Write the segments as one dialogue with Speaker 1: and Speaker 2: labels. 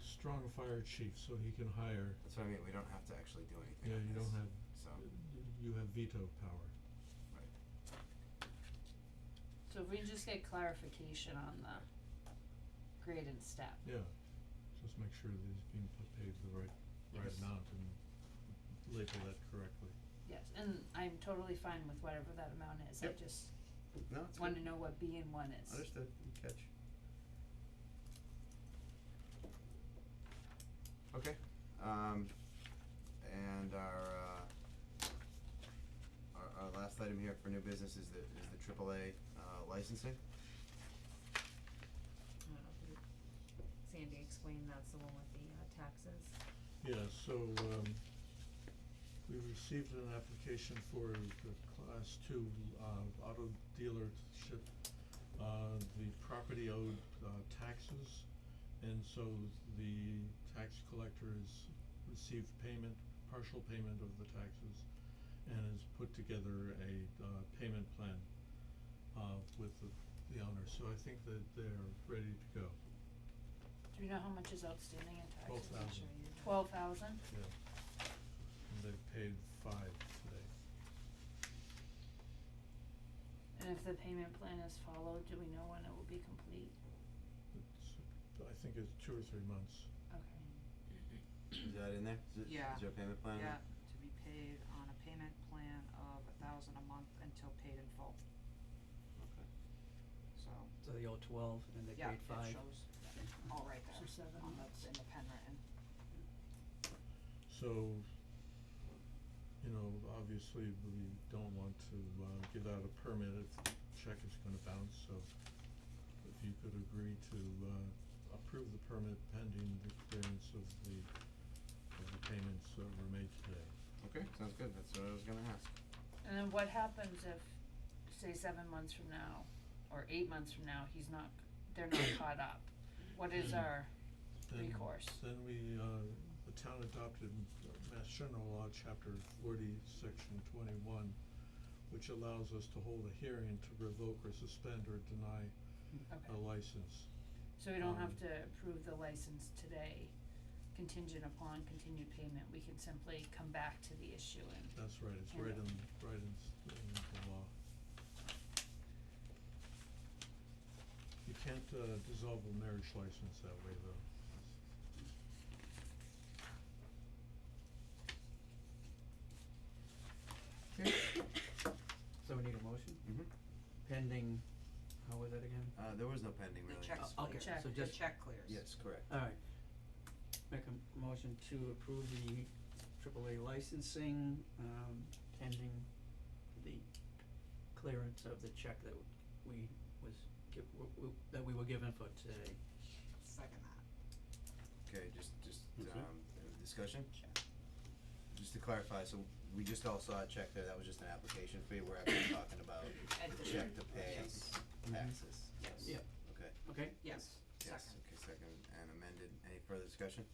Speaker 1: strong fire chief, so he can hire,
Speaker 2: That's what I mean, we don't have to actually do anything
Speaker 1: yeah,
Speaker 2: on
Speaker 1: you
Speaker 2: this,
Speaker 1: don't have,
Speaker 2: so,
Speaker 1: y- y- you have veto power.
Speaker 3: So if we can just get clarification on the grade and step,
Speaker 1: Yeah, just make sure that he's being put- paid the right, right
Speaker 3: Yes.
Speaker 1: amount and label that correctly.
Speaker 3: yes, and I'm totally fine with whatever that amount is, I
Speaker 2: Yep.
Speaker 3: just
Speaker 2: no, it's good,
Speaker 3: wanna know what B and one is.
Speaker 2: understood, Good catch. Okay, um, and our, uh, our, our last item here for new business is the, is the AAA, uh, licensing.
Speaker 4: I don't know, did Sandy explained that's the one with the uh taxes.
Speaker 1: Yeah, so um we received an application for the class two uh auto dealership. Uh the property owed uh taxes and so the tax collector has received payment, partial payment of the taxes and has put together a uh payment plan uh with the the owner, so I think that they're ready to go.
Speaker 3: Do you know how much is outstanding in
Speaker 1: Twelve
Speaker 3: taxes?
Speaker 1: thousand.
Speaker 3: Twelve thousand?
Speaker 1: Yeah. And they've paid five today.
Speaker 3: And if the payment plan is followed, do we know when it will be complete?
Speaker 1: It's, I think it's two or three months.
Speaker 3: Okay.
Speaker 2: Is that in there? Is it,
Speaker 5: Yeah.
Speaker 2: is there a payment plan? in there?
Speaker 5: Yeah, to be paid on a payment plan of a thousand a month until paid in full,
Speaker 2: Okay.
Speaker 5: so,
Speaker 6: So they owe twelve and they
Speaker 5: yeah,
Speaker 6: paid
Speaker 5: it
Speaker 6: five.
Speaker 5: shows, all right
Speaker 3: So
Speaker 5: there,
Speaker 3: seven.
Speaker 5: on the, in the pen written.
Speaker 1: So, you know, obviously, we don't want to, uh, give out a permit if the check is gonna bounce, so if you could agree to, uh, approve the permit pending the clearance of the, of the payments that were made today.
Speaker 2: Okay, sounds good, that's what I was gonna ask.
Speaker 3: And then what happens if, say, seven months from now, or eight months from now, he's not, they're not caught up? What is our,
Speaker 1: Then-
Speaker 3: Recourse.
Speaker 1: Then we, uh, the town adopted Mass General Law, Chapter forty, Section twenty-one, which allows us to hold a hearing to revoke or suspend or deny a
Speaker 3: okay,
Speaker 1: license.
Speaker 3: so we don't
Speaker 1: Oh, um,
Speaker 3: have to approve the license today contingent upon continued payment, we can simply come back to the issue and,
Speaker 1: That's right, it's
Speaker 3: Yeah.
Speaker 1: right in, right in, s- in the law. You can't, uh, dissolve a marriage license that way, though.
Speaker 6: So we need a motion
Speaker 2: Mm-hmm.
Speaker 6: pending, how was that again?
Speaker 2: Uh, there was no pending
Speaker 5: The
Speaker 2: really.
Speaker 5: check
Speaker 6: Oh,
Speaker 5: clears,
Speaker 6: Okay, so
Speaker 3: Check.
Speaker 5: the
Speaker 6: just,
Speaker 5: check clears.
Speaker 2: Yes, correct.
Speaker 6: alright. Make a motion to approve the AAA licensing, um, pending the clearance of the check that we was give, w- w- that we were given for today.
Speaker 5: Second that.
Speaker 2: Okay, just, just, um,
Speaker 6: Mhm.
Speaker 5: Mm-hmm.
Speaker 2: uh, discussion? Just to clarify, so we just all saw a check there, that was just an application fee, we're actually talking about the
Speaker 5: Addition.
Speaker 2: check to pay
Speaker 5: Yes, Mm-hmm.
Speaker 6: Mhm.
Speaker 2: taxes.
Speaker 5: yes.
Speaker 6: Yeah.
Speaker 2: Okay,
Speaker 6: Okay,
Speaker 5: Yes,
Speaker 2: yes,
Speaker 5: second.
Speaker 2: okay, second and amended, any further discussion?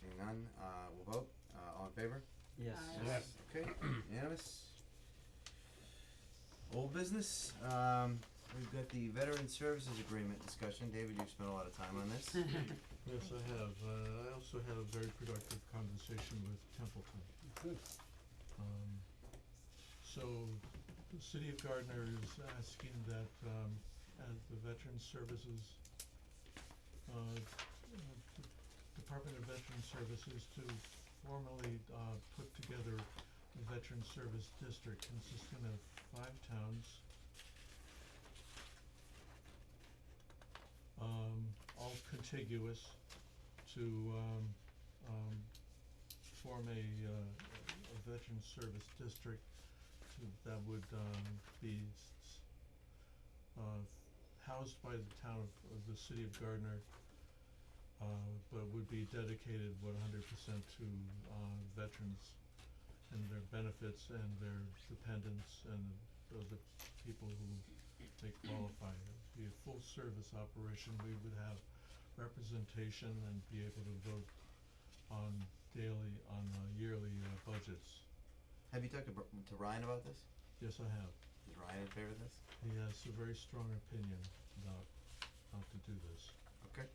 Speaker 2: Seeing none, uh, we'll vote, uh, all in favor?
Speaker 6: yes.
Speaker 3: Aye.
Speaker 2: Yes. Okay, unanimous. Old business, um, we've got the veteran services agreement discussion, David, you've spent a lot of time on this.
Speaker 1: Yes, I have. Uh, I also had a very productive conversation with Templeton. Um, so the city of Gardner is asking that, um, at the Veteran Services, uh, uh, D- Department of Veteran Services to formally, uh, put together a veteran service district consisting of five towns. Um, all contiguous to um um form a uh a veteran service district to that would um be s- s- uh housed by the town of of the city of Gardner uh but would be dedicated one hundred percent to uh veterans and their benefits and their dependents and the the people who they qualify. It would be a full service operation, we would have representation and be able to vote on daily, on uh, yearly uh, budgets.
Speaker 2: Have you talked to, Br- to Ryan about this?
Speaker 1: Yes, I have.
Speaker 2: Is Ryan in favor of this?
Speaker 1: He has a very strong opinion about how to do this.
Speaker 2: Okay.